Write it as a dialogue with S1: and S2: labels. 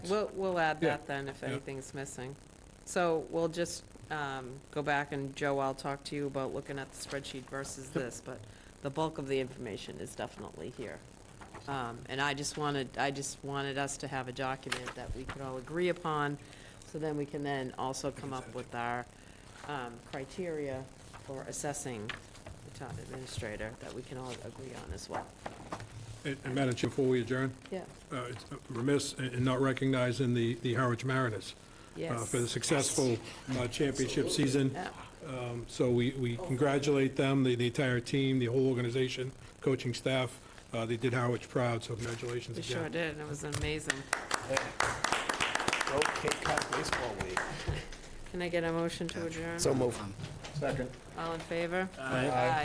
S1: We'll, we'll add
S2: Yeah.
S1: that then if
S2: Yeah.
S1: anything's missing. So we'll just um, go back and Joe, I'll talk to you about looking at the spreadsheet versus this, but the bulk of the information is definitely here. Um, And I just wanted, I just wanted us to have a document that we could all agree upon, so then we can then also come up with our um, criteria for assessing the town administrator that we can all agree on as well.
S2: And and Madam Chair, before we adjourn,
S1: Yeah,
S2: uh, it's remiss in in not recognizing the the Harwich Mariners uh,
S1: yes.
S2: for the successful uh, championship season.
S1: Yeah.
S2: Um, So we we congratulate them, the the entire team, the whole organization, coaching staff. Uh, They did Harwich proud, so congratulations
S1: We
S2: again.
S1: sure did, and it was amazing.
S3: Go Cape Cod Baseball League.
S1: Can I get a motion to adjourn?
S3: So move.
S1: All in favor?
S3: Aye.
S1: Aye.